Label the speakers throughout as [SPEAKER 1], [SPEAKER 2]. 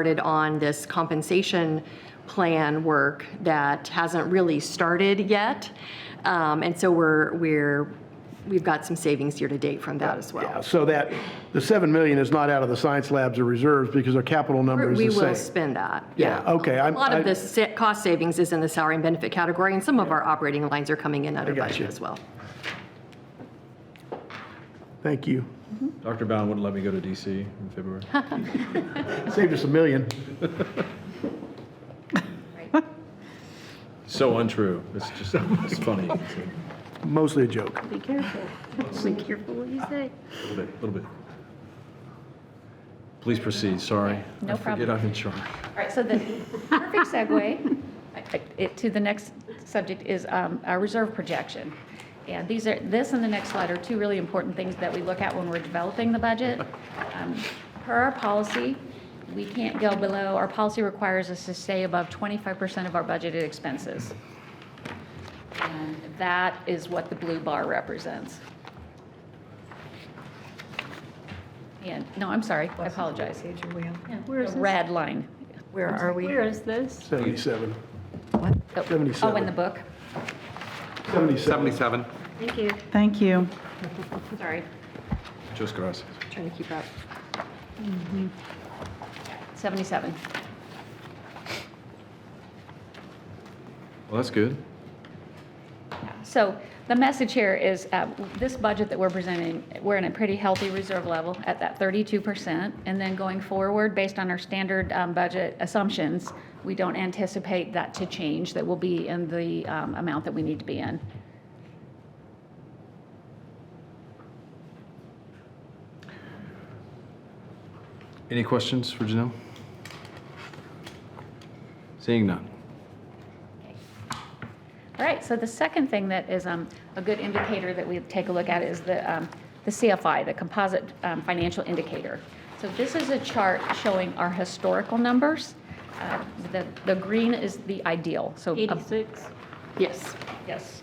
[SPEAKER 1] started on this compensation plan work that hasn't really started yet. Um, And so we're, we're, we've got some savings year-to-date from that as well.
[SPEAKER 2] So that, the 7 million is not out of the science labs or reserves because our capital number is
[SPEAKER 1] We
[SPEAKER 2] the
[SPEAKER 1] will
[SPEAKER 2] same.
[SPEAKER 1] spend that,
[SPEAKER 2] Yeah,
[SPEAKER 1] yeah.
[SPEAKER 2] okay,
[SPEAKER 1] A
[SPEAKER 2] I'm-
[SPEAKER 1] lot
[SPEAKER 2] I-
[SPEAKER 1] of the sa- cost savings is in the salary and benefit category, and some of our operating lines are coming in under
[SPEAKER 2] got you.
[SPEAKER 1] budget as well.
[SPEAKER 2] Thank you.
[SPEAKER 3] Dr. Bowen wouldn't let me go to DC in February.
[SPEAKER 2] Saved us a million.
[SPEAKER 3] so untrue. It's just it's funny. It's a
[SPEAKER 2] Mostly a joke.
[SPEAKER 4] Be careful. Be careful what you say.
[SPEAKER 3] little bit, little bit. Please proceed. Sorry.
[SPEAKER 5] No
[SPEAKER 3] I forget
[SPEAKER 5] problem.
[SPEAKER 3] I'm in charge.
[SPEAKER 5] All right, so the perfect segue it- to the next subject is um, our reserve projection. And these are, this and the next slide are two really important things that we look at when we're developing the budget. Um, Per our policy, we can't go below, our policy requires us to stay above 25% of our budgeted expenses. And that is what the blue bar represents. And, no, I'm sorry, I apologize.
[SPEAKER 4] Where is
[SPEAKER 5] The
[SPEAKER 4] this?
[SPEAKER 5] red line.
[SPEAKER 4] Where are we? Where is this?
[SPEAKER 2] 77.
[SPEAKER 5] Oh, Oh,
[SPEAKER 2] 77.
[SPEAKER 5] in the book?
[SPEAKER 2] 77.
[SPEAKER 6] 77.
[SPEAKER 4] Thank you.
[SPEAKER 7] Thank you.
[SPEAKER 5] Sorry.
[SPEAKER 3] Just gracias.
[SPEAKER 1] Trying to keep up.
[SPEAKER 5] 77.
[SPEAKER 3] Well, that's good.
[SPEAKER 5] So the message here is uh, this budget that we're presenting, we're in a pretty healthy reserve level at that 32%. And then going forward, based on our standard um, budget assumptions, we don't anticipate that to change, that will be in the um, amount that we need to be in.
[SPEAKER 3] Any questions for Janelle? Seeing none.
[SPEAKER 5] All right, so the second thing that is um, a good indicator that we take a look at is the, um, the CFI, the Composite um, Financial Indicator. So this is a chart showing our historical numbers. Uh, The, the green is the ideal, so. um,
[SPEAKER 4] 86.
[SPEAKER 1] Yes.
[SPEAKER 5] Yes.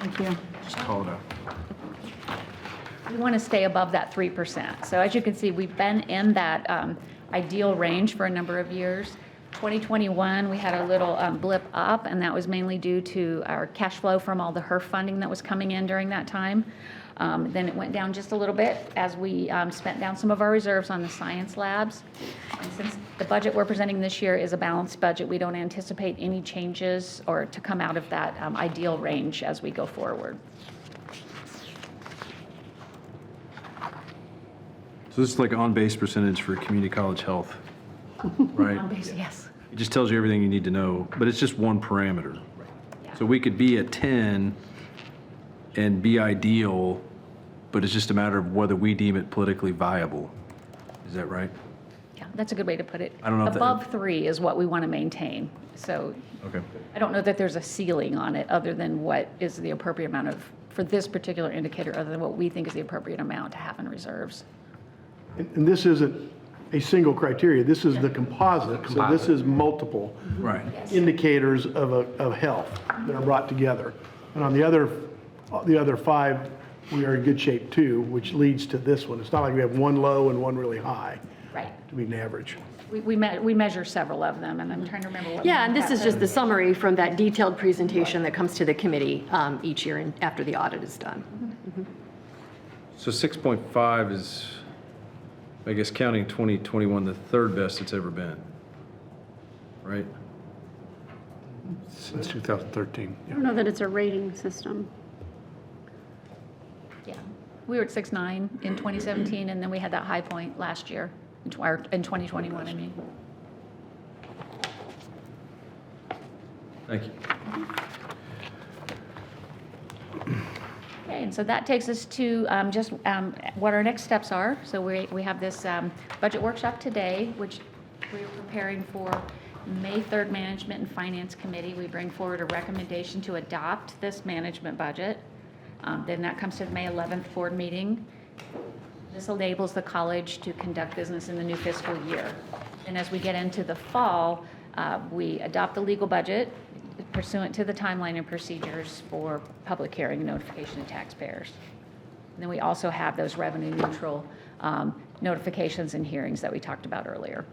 [SPEAKER 7] Thank you.
[SPEAKER 3] Just call it out.
[SPEAKER 5] We want to stay above that 3%. So as you can see, we've been in that um, ideal range for a number of years. 2021, we had a little um, blip up, and that was mainly due to our cash flow from all the HERF funding that was coming in during that time. Um, Then it went down just a little bit as we um, spent down some of our reserves on the science labs. And since the budget we're presenting this year is a balanced budget, we don't anticipate any changes or to come out of that um, ideal range as we go forward.
[SPEAKER 3] So this is like on-base percentage for community college health, right?
[SPEAKER 5] Um, Yes.
[SPEAKER 3] It just tells you everything you need to know, but it's just one parameter. So we could be at 10 and be ideal, but it's just a matter of whether we deem it politically viable. Is that right?
[SPEAKER 5] Yeah, that's a good way to put it.
[SPEAKER 3] I don't know if that-
[SPEAKER 5] Above three is what we want to maintain. So
[SPEAKER 3] Okay.
[SPEAKER 5] I don't know that there's a ceiling on it other than what is the appropriate amount of, for this particular indicator, other than what we think is the appropriate amount to have in reserves.
[SPEAKER 2] And and this isn't a single criteria, this is the composite. So this
[SPEAKER 6] Composite.
[SPEAKER 2] is multiple
[SPEAKER 3] Right.
[SPEAKER 2] indicators of, a- of health that are brought together. And on the other, the other five, we are in good shape too, which leads to this one. It's not like we have one low and one really high.
[SPEAKER 5] Right.
[SPEAKER 2] to be an average.
[SPEAKER 5] We, we me, we measure several of them, and I'm trying to remember what.
[SPEAKER 1] Yeah, and this is just the summary from that detailed presentation that comes to the committee um, each year and after the audit is done.
[SPEAKER 3] So 6.5 is, I guess, counting 2021, the third best it's ever been, right?
[SPEAKER 6] Since 2013.
[SPEAKER 4] I don't know that it's a rating system.
[SPEAKER 5] Yeah. We were at six nine in 2017, and then we had that high point last year, in tw- or in 2021, I mean.
[SPEAKER 3] Thank you.
[SPEAKER 5] Okay, and so that takes us to um, just um, what our next steps are. So we, we have this um, budget workshop today, which we're preparing for May 3rd Management and Finance Committee. We bring forward a recommendation to adopt this management budget. Um, Then that comes to the May 11th board meeting. This enables the college to conduct business in the new fiscal year. And as we get into the fall, uh, we adopt the legal budget pursuant to the timeline and procedures for public hearing and notification to taxpayers. And then we also have those revenue neutral um, notifications and hearings that we talked about earlier.